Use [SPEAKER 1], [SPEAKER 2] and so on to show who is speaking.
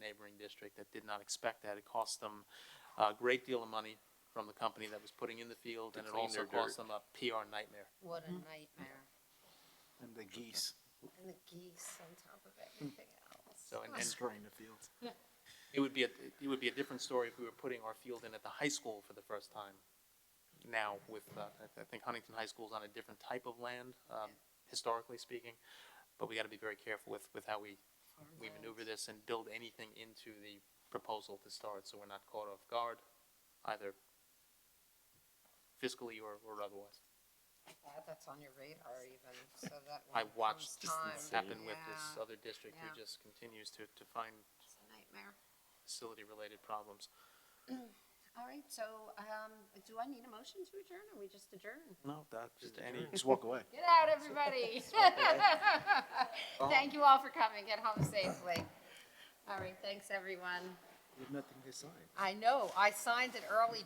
[SPEAKER 1] district that did not expect that. It cost them a great deal of money from the company that was putting in the field,
[SPEAKER 2] To
[SPEAKER 1] and it
[SPEAKER 2] clean
[SPEAKER 1] also
[SPEAKER 2] their
[SPEAKER 1] cost them a PR nightmare.
[SPEAKER 3] What a nightmare.
[SPEAKER 4] And the geese
[SPEAKER 3] And the geese on top of everything else.
[SPEAKER 1] So, and, and
[SPEAKER 4] destroying the fields.
[SPEAKER 1] it would be, a it would be a different story if we were putting our field in at the high school for the first time. Now with, uh, I- I think Huntington High School's on a different type of land, um, historically speaking. But we gotta be very careful with, with how we, we maneuver this and build anything into the proposal to start, so we're not caught off guard, either fiscally or, or otherwise.
[SPEAKER 3] Glad that's on your radar even, so that
[SPEAKER 1] I
[SPEAKER 3] when it comes
[SPEAKER 1] watched this
[SPEAKER 3] time.
[SPEAKER 1] happen with this
[SPEAKER 3] Yeah,
[SPEAKER 1] other district who
[SPEAKER 3] Yeah.
[SPEAKER 1] just continues to, to find
[SPEAKER 3] It's a nightmare.
[SPEAKER 1] facility-related problems.
[SPEAKER 3] All right, so, um, do I need a motion to adjourn or we just adjourn?
[SPEAKER 1] No, that's just any.
[SPEAKER 4] Just walk away.
[SPEAKER 3] Get out, everybody. Thank you all for coming. Get home safely. All right, thanks, everyone.
[SPEAKER 4] You have nothing to sign.
[SPEAKER 3] I know, I signed it early